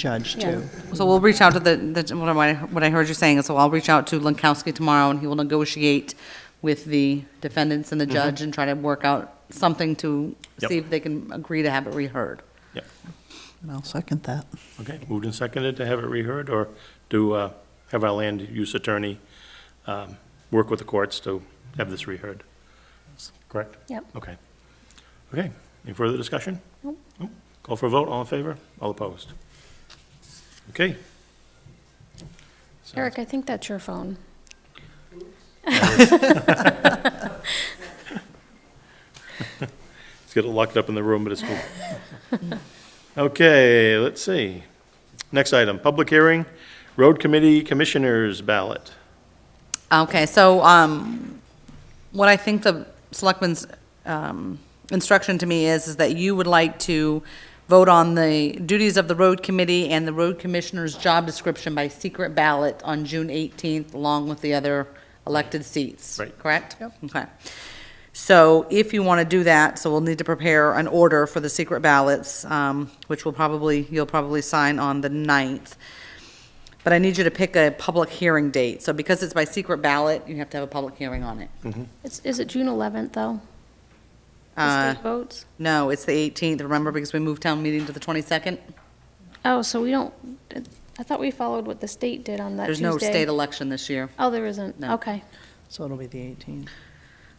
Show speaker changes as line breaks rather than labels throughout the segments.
judge
Yeah.
too.
So we'll reach out to the, the- what am I, what I heard you saying, so I'll reach out to Lankowski tomorrow, and he will negotiate with the defendants and
Mm-hmm.
the judge and try to work out something to
Mm-hmm. Yep.
see if they can agree to have it reheard.
Yep.
And I'll second that.
Okay, moved and seconded to have it reheard, or to uh, have our land use attorney um, work with the courts to have this reheard? Correct?
Yep.
Okay. Okay, any further discussion? Nope. Call for a vote, all in favor, all opposed? Okay.
Eric, I think that's your phone.
Let's get it locked up in the room, but it's cool. Okay, let's see. Next item, public hearing, road committee commissioners ballot.
Okay, so, um, what I think the selectmen's, um, instruction to me is, is that you would like to vote on the duties of the road committee and the road commissioner's job description by secret ballot on June eighteenth, along with the other elected seats.
Right.
Correct? Okay. So if you want to do that, so we'll need to prepare an order for the secret ballots, um, which will probably, you'll probably sign on the ninth. But I need you to pick a public hearing date. So because it's by secret ballot, you have to have a public hearing on it.
It's, is it June 11th, though?
Uh,
The state votes?
No, it's the 18th, remember, because we moved town meeting to the 22nd?
Oh, so we don't, I thought we followed what the state did on that
There's
Tuesday.
no state election this year.
Oh, there isn't?
No.
Okay.
So it'll be the 18th.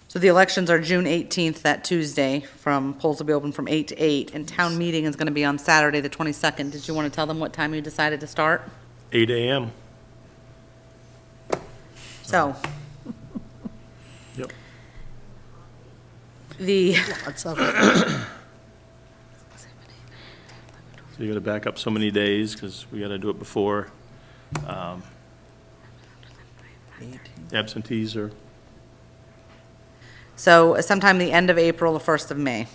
So the elections are June 18th, that Tuesday, from, polls will be open from 8 to 8, and town meeting is going to be on Saturday, the 22nd. Did you want to tell them what time you decided to start?
Eight AM.
So.
Yep.
The,
That's up.
So you're gonna back up so many days, because we gotta do it before
18th.
absentees are,
so sometime the end of April, the 1st of May.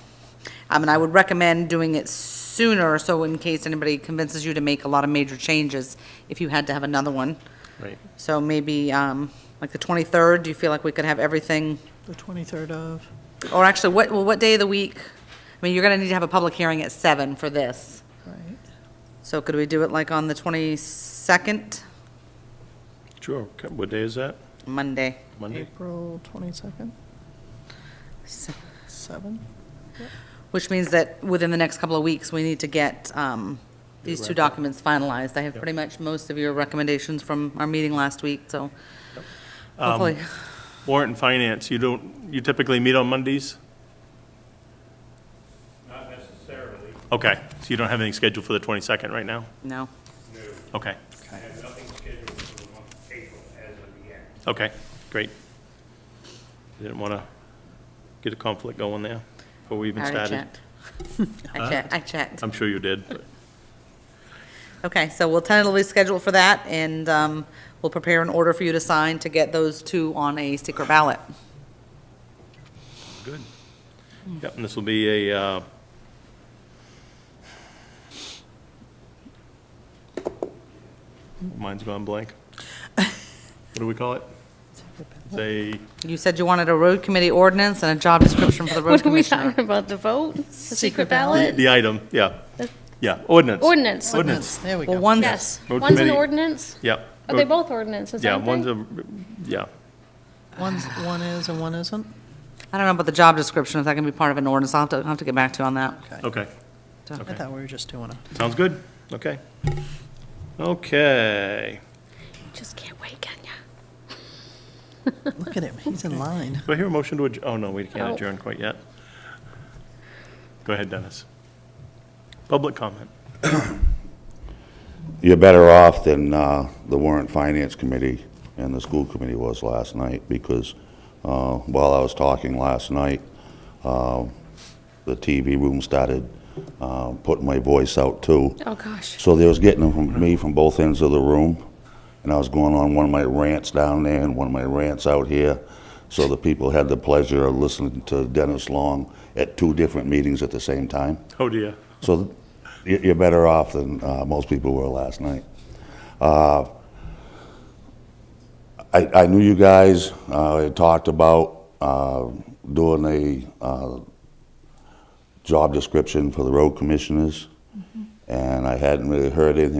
Um, And I would recommend doing it sooner, so in case anybody convinces you to make a lot of major changes, if you had to have another one.
right,
So maybe, um, like the 23rd, do you feel like we could have everything?
The 23rd of,
Or actually, what, well, what day of the week? I mean, you're gonna need to have a public hearing at seven for this.
right?
So could we do it like on the 22nd,
sure. Okay, What day is that?
Monday?
Monday?
April 22nd,
So-
7?
Which means that within the next couple of weeks, we need to get um, these two documents finalized. I have pretty much most of your recommendations from our meeting last week, so hopefully.
Warrant and finance, you don't, you typically meet on Mondays?
Not necessarily,
Okay, so you don't have anything scheduled for the 22nd right now?
No.
no.
Okay,
I have nothing scheduled for the month of April as of yet.
okay, great. Didn't want to get a conflict going there before we even
I already
started.
checked. I checked, I checked.
I'm sure you did, but
Okay, so we'll tentatively schedule for that, and um, we'll prepare an order for you to sign to get those two on a secret ballot.
good. Yep, and this will be a, uh, mine's gone blank. What do we call it? It's a
You said you wanted a road committee ordinance and a job description for the road
What are we
commissioner.
talking about, the vote? The secret ballot?
The item, yeah.
The-
Yeah, ordinance.
Ordinance.
Ordinance,
There we
Well,
go.
one's,
Yes.
Road
One's an
committee.
ordinance?
yeah.
Are they both ordinances,
Yeah,
aren't they?
one's a, yeah,
One's, one is and one isn't?
I don't know about the job description, if that can be part of an ordinance, I'll have to, I'll have to get back to you on that.
okay,
I thought we were just doing a,
sounds good, okay. Okay,
Just can't wait, can ya?
look at him, he's in line.
do I hear a motion to adjourn? Oh, no, we can't
Oh.
adjourn quite yet. Go ahead, Dennis. Public comment.
You're better off than uh, the warrant finance committee and the school committee was last night, because uh, while I was talking last night, uh, the TV room started uh, putting my voice out too.
Oh, gosh.
So they was getting them from me from both ends of the room, and I was going on one of my rants down there and one of my rants out here. So the people had the pleasure of listening to Dennis Long at two different meetings at the same time.
Oh dear,
So you- you're better off than uh, most people were last night. Uh, I I knew you guys uh, had talked about uh, doing a uh, job description for the road commissioners, and I hadn't really heard anything